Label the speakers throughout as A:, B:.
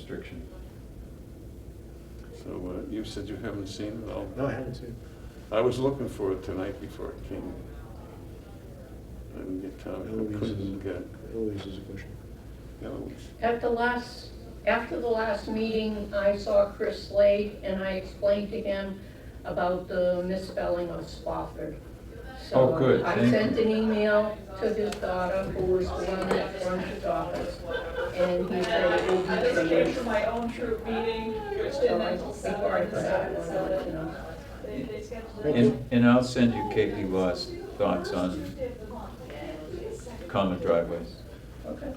A: restriction.
B: So uh, you said you haven't seen it all.
C: No, I haven't seen.
B: I was looking for it tonight before it came. I didn't get time, I
C: Eloise
B: couldn't
C: is,
B: get it.
C: Eloise is a question.
B: Eloise.
D: At the last, after the last meeting, I saw Chris Slade and I explained to him about the misspelling of Spofford.
A: Oh, good, thank
D: So I
A: you.
D: sent an email to his daughter, who was the one that runs his office, and he said it will
E: I just
D: be
E: came to
D: changed.
E: my own troop meeting, which
D: So
E: didn't
D: I,
E: until
D: before I
E: seven,
D: forgot, I
E: so
D: wanted to let you know.
E: they, they scheduled it.
A: And, and I'll send you KP Law's thoughts on common driveways.
D: Okay.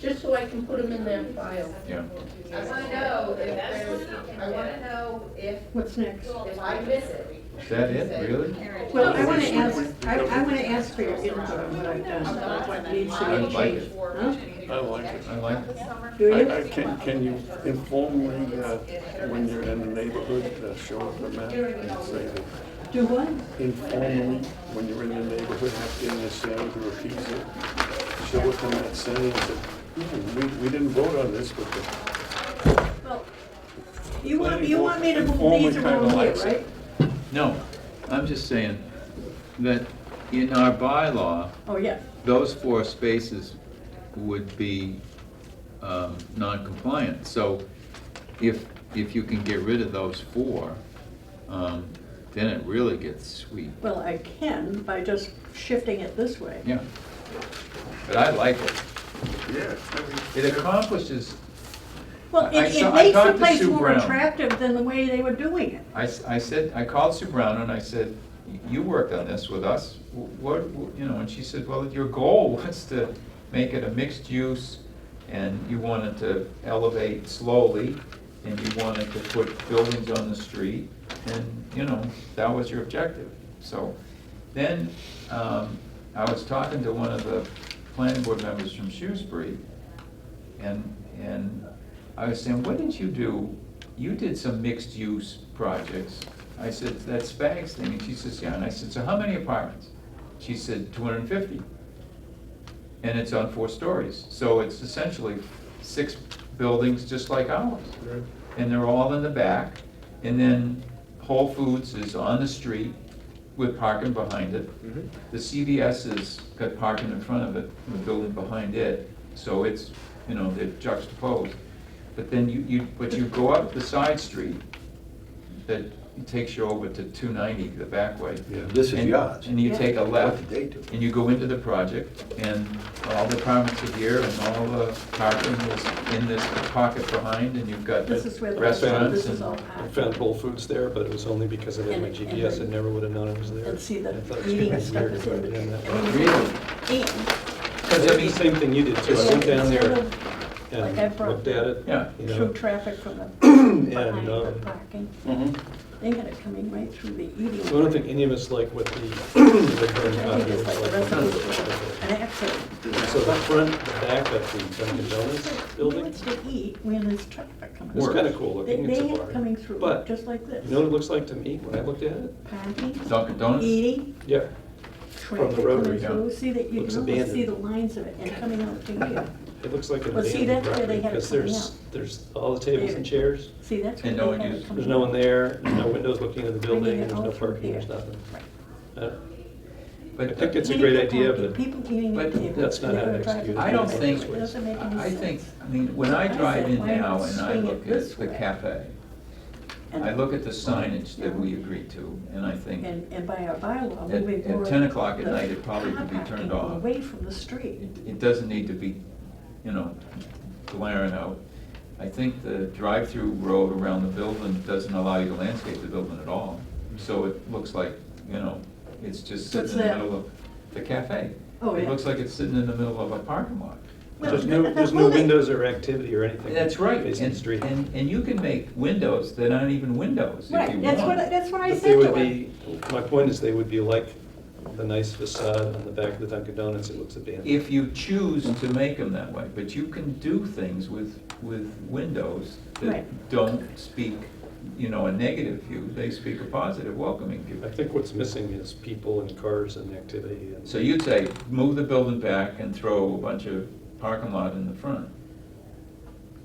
D: Just so I can put them in that file.
A: Yeah,
F: I wanna know if there's, I wanna know if,
G: What's next?
F: if I miss it.
A: is that it, really?
F: Karen,
G: Well, I want to ask, I, I want to ask for your input on what I've done, about what needs to
A: I
G: be
A: like
G: changed.
A: it.
G: Huh?
B: I like it.
A: I like it.
G: Do you?
B: I- I Can, can you inform me uh, when you're in the neighborhood, uh, show us the map and say that?
G: Do what?
B: informally, when you're in the neighborhood, have to in the sand or a pizza, show it to that saying that, "Hmm, we, we didn't vote on this, but the.
G: You want, you want me to move
B: Informally
G: these
B: kinda
G: around here,
B: likes it.
G: right?
A: No, I'm just saying that in our bylaw,
G: Oh, yeah.
A: those four spaces would be um, non-compliant. So if, if you can get rid of those four, um, then it really gets sweet.
G: Well, I can by just shifting it this way.
A: Yeah. But I like it.
B: Yeah.
A: It accomplishes,
G: Well,
A: I- I
G: it,
A: saw-
G: it
A: I
G: makes
A: talked
G: the
A: to
G: place
A: Sue
G: more
A: Brown.
G: attractive than the way they were doing it.
A: I, s- I said, I called Sue Brown and I said, you worked on this with us, what, what- you know, and she said, well, your goal was to make it a mixed use and you wanted to elevate slowly and you wanted to put buildings on the street and, you know, that was your objective. So then, um, I was talking to one of the planning board members from Shrewsbury and, and I was saying, what did you do? You did some mixed-use projects. I said, that Spags thing, and she says, yeah, and I said, so how many apartments? She said, two hundred and fifty. And it's on four stories, so it's essentially six buildings just like ours.
C: Right.
A: And they're all in the back, and then Whole Foods is on the street with parking behind it.
C: Mhm.
A: The CVS has got parking in front of it, and the building behind it, so it's, you know, they're juxtaposed. But then you, you, but you go up the side street that takes you over to two ninety, the back way.
B: Yeah.
H: This is
A: And-
H: yours.
A: And you take a left,
H: What did they do?
A: and you go into the project, and all the apartments are here, and all the parking is in this pocket behind, and you've got the
G: This
A: restaurants
G: is
A: and.
G: where the restaurant, this is all
I: I
G: packed.
I: found Whole Foods there, but it was only because I didn't have my
G: And-
I: GPS, I
G: and-
I: never would have known it was there.
G: And see
I: I thought it
G: the
I: was
G: eating
I: kinda
G: stuff
I: weird
G: is
I: to
G: in
I: put it
G: the.
I: that
G: I
I: way.
G: mean,
A: Really?
G: And.
I: Because I mean, same thing you did too, I went down
G: Sort
I: there
G: of like I
I: and
G: brought-
I: looked at it.
A: Yeah.
I: you
G: Through
I: know,
G: traffic from the, behind
I: And,
G: the
I: um,
G: parking.
H: Mm-hmm.
B: Mhm.
G: They got it coming right through the eating.
I: so I don't think any of us like what the- the. current
G: I
I: copy
G: think it's
I: looks
G: like the
I: like.
G: rest of the, an accident.
I: So the front, the back of the Dunkin' Donuts
G: Who
I: building,
G: wants to eat when there's traffic coming?
I: it's
A: Works.
I: kind of cool
G: They,
I: looking, it's
G: they
I: a
G: have
I: bar.
G: coming through,
I: But,
G: just like
I: you know what
G: this.
I: it looks like to me when I looked at it?
G: Parking,
A: Dunkin' Donuts,
G: eating,
I: Yeah,
G: traffic
I: rotary,
G: coming
A: yeah.
G: through, see that, you
I: Looks
G: can almost see
I: abandoned.
G: the lines of it and coming out to here.
I: it looks like an
G: Well, see,
I: abandoned
G: that's where they
I: property,
G: had it
I: because
G: coming
I: there's,
G: out.
I: there's all the tables and
G: David.
I: chairs,
G: See, that's where
A: And
G: they
A: no one
G: have it
A: uses-
G: coming
I: there's no one
G: out.
I: there, there's no windows looking into the
G: Bringing
I: building,
G: it
I: there's
G: all
I: no
G: through
I: parking, there's
G: here.
I: nothing.
G: Right.
I: Uh,
A: but. uh,
I: I think it's a
G: Many
I: great
G: people
I: idea,
G: parking,
I: but
G: People eating
A: but
G: at tables.
I: that's not
G: they
I: how
G: were
I: to
G: driving
I: execute
A: I don't think,
G: It doesn't make any
A: I think,
G: sense.
A: I mean, when I
G: I
A: drive
G: said,
A: in
G: why
A: now
G: not
A: and I
G: swing it
A: look at
G: this
A: the
G: way?
A: cafe,
G: And-
A: I look at the signage that
G: Yeah.
A: we agreed to, and I think,
G: And, and by our bylaw,
A: At-
G: we
A: at
G: would.
A: 10 o'clock at
G: the
A: night, it probably could be
G: car
A: turned
G: parking
A: off.
G: Away from the street.
A: It, it doesn't need to be, you know, glaring out. I think the drive-through road around the building doesn't allow you to landscape the building at all. So it looks like, you know, it's just sitting
G: What's
A: in the
G: that?
A: middle of the cafe.
G: Oh,
A: It
G: yeah.
A: looks like it's sitting in the middle of a parking lot.
G: Well,
I: There's no,
G: the-
I: there's
G: the
I: no
G: whole-
I: windows or activity or anything.
A: That's right,
I: Facing the
A: and,
I: street.
A: and, and you can make windows that aren't even windows if you
G: Right,
A: want.
G: that's what, I- that's what I
I: But
G: said
I: they would
G: to him.
I: be, my point is they would be like the nice facade on the back of the Dunkin' Donuts, it looks abandoned.
A: If you choose to make them that way, but you can do things with, with windows that
G: Right.
A: don't speak, you know, a negative view, they speak a positive, welcoming view.
I: I think what's missing is people and cars and activity and.
A: So you'd say, move the building back and throw a bunch of parking lot in the front.